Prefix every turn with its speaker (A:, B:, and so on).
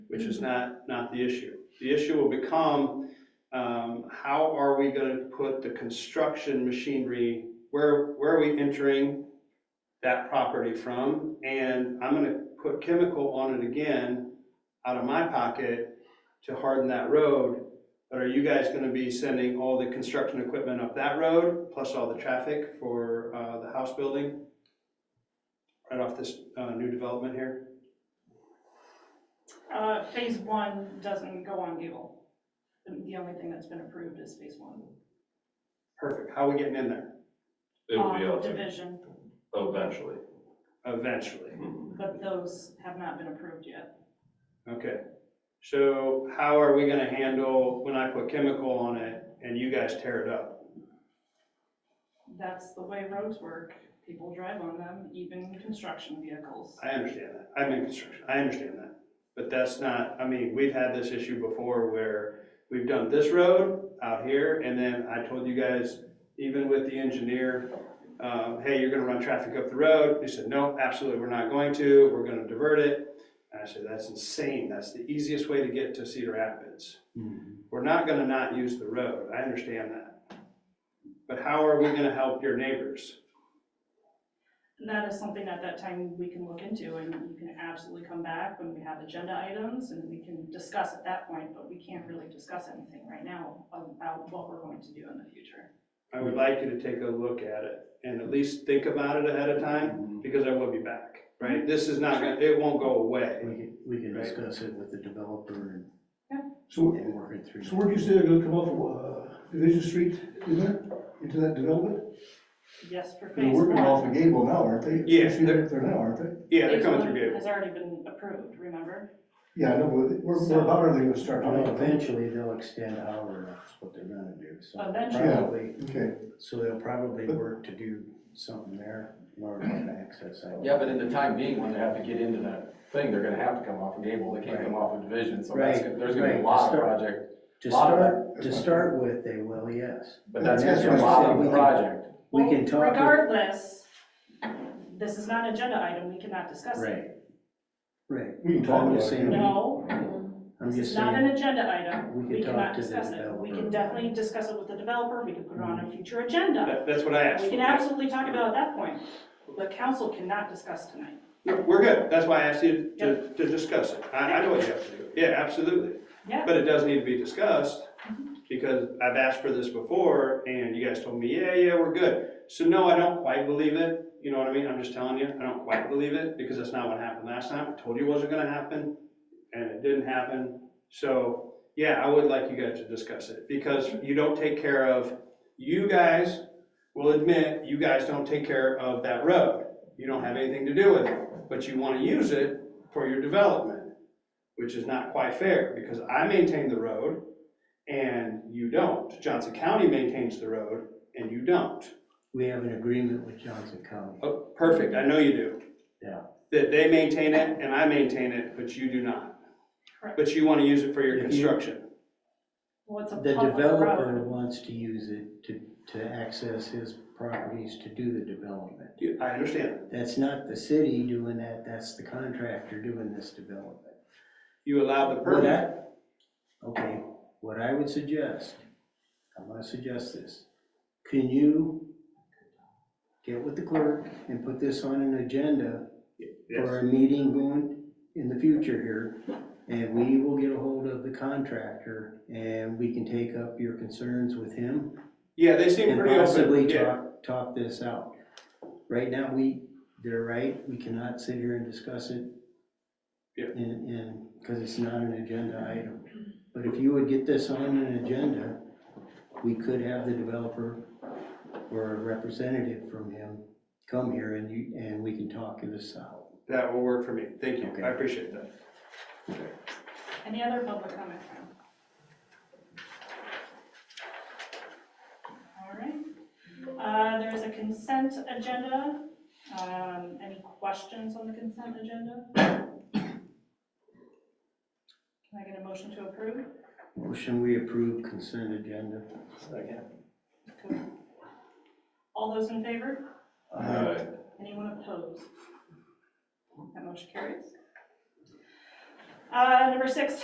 A: which is not, not the issue. The issue will become, um, how are we gonna put the construction machinery, where, where are we entering that property from? And I'm gonna put chemical on it again, out of my pocket, to harden that road. But are you guys gonna be sending all the construction equipment up that road, plus all the traffic for, uh, the house building? Right off this, uh, new development here?
B: Uh, phase one doesn't go on Gable. The the only thing that's been approved is phase one.
A: Perfect. How are we getting in there?
C: It will be
B: Um,
C: out there
B: Division,
C: eventually.
A: Eventually.
B: but those have not been approved yet.
A: Okay. So how are we gonna handle when I put chemical on it and you guys tear it up?
B: That's the way roads work. People drive on them, even construction vehicles.
A: I understand that. I'm in construction. I understand that. But that's not, I mean, we've had this issue before where we've done this road out here and then I told you guys, even with the engineer, um, hey, you're gonna run traffic up the road. They said, no, absolutely, we're not going to. We're gonna divert it. And I said, that's insane. That's the easiest way to get to Cedar Rapids. We're not gonna not use the road, I understand that. But how are we gonna help your neighbors?
B: And that is something at that time we can look into, and you can absolutely come back when we have agenda items, and we can discuss at that point, but we can't really discuss anything right now about what we're going to do in the future.
A: I would like you to take a look at it and at least think about it ahead of time,
D: We
A: because I will be back, right? This is not gonna, it won't go away.
D: can, we can
A: Right.
D: discuss it with the developer
E: So,
D: and work it through.
E: so where do you say they're gonna come off, uh, Division Street, is there, into that development?
B: Yes, for
E: They're
B: phase one.
E: working off of Gable now, aren't they?
A: Yeah,
E: Actually, They're up there now, aren't they?
A: Yeah, they're
B: Phase
A: coming
B: one
A: through Gable.
B: Has already been approved, remember?
E: Yeah, I know, but where,
B: So-
E: where about are they gonna start?
D: Well, Eventually, they'll extend our, that's what they're gonna do, so.
B: Eventually.
D: probably-
E: Okay,
D: So they'll probably work to do something there in order to access that.
F: Yeah, but in the time being, when they have to get into that thing, they're gonna have to come off of Gable, they can't come off of Division, so that's,
D: Right.
F: there's gonna be
D: Right.
F: a lot of
D: Start-
F: project,
D: To
F: lot of
D: start, to start with, they will, yes.
F: but that's
E: That's
F: gonna be a
E: what I
F: lot
E: said, we
F: of
E: can-
F: project.
D: We
B: Well,
D: can talk. it-
B: Regardless, this is not an agenda item, we cannot discuss it.
D: Right. Right.
E: we can talk
D: I'm
E: about
D: just saying,
E: it.
B: No,
D: I'm
B: this
D: just
B: is not an
D: saying,
B: agenda item,
D: we
B: we
D: can talk
B: cannot
D: to the
B: discuss it. We can
D: developer. Mm-hmm.
B: definitely discuss it with the developer, we can put it on a future agenda.
A: That- That's what I asked.
B: We can absolutely talk about it at that point, but council cannot discuss tonight.
A: No, We're good, that's why I asked you to, to discuss it. I, I know what you have to do. Yeah, absolutely.
B: Yeah.
A: But it does need to be discussed, because I've asked for this before, and you guys told me, yeah, yeah, we're good. So no, I don't quite believe it, you know what I mean? I'm just telling you, I don't quite believe it, because that's not what happened last time. I told you it wasn't gonna happen, and it didn't happen. So, yeah, I would like you guys to discuss it, because you don't take care of, you guys will admit, you guys don't take care of that road. You don't have anything to do with it, but you wanna use it for your development which is not quite fair, because I maintain the road and you don't. Johnson County maintains the road and you don't.
D: we have an agreement with Johnson County.
A: Oh, perfect, I know you do.
D: Yeah.
A: That they maintain it and I maintain it, but you do not.
B: Correct.
A: But you wanna use it for your
D: If you-
A: construction.
B: Well, it's a
D: The
B: public
D: developer
B: road.
D: wants to use it to, to access his properties to do the development.
A: You- I understand,
D: That's not the city doing that, that's the contractor doing this development.
A: you allowed the
D: What
A: permit.
D: I- Okay, what I would suggest, I'm gonna suggest this, can you get with the clerk and put this on an agenda for a meeting going in the future here? And we will get a hold of the contractor and we can take up your concerns with him
A: Yeah, they seem
D: and
A: pretty open,
D: possibly
A: yeah,
D: talk, talk this out. Right now, we, they're right, we cannot sit here and discuss it.
A: Yeah.
D: And, and, because it's not an agenda item. But if you would get this on an agenda, we could have the developer or a representative from him come here and you, and we can talk this out.
A: that will work for me, thank you,
D: Okay.
A: I appreciate that.
B: Any other public comment? All right, Uh, there is a consent agenda. Um, Any questions on the consent agenda? Can I get a motion to approve?
D: Motion, we approve consent agenda.
B: All those in favor?
D: Uh,
C: Alright.
B: Anyone opposed? That motion carries. Uh, number six,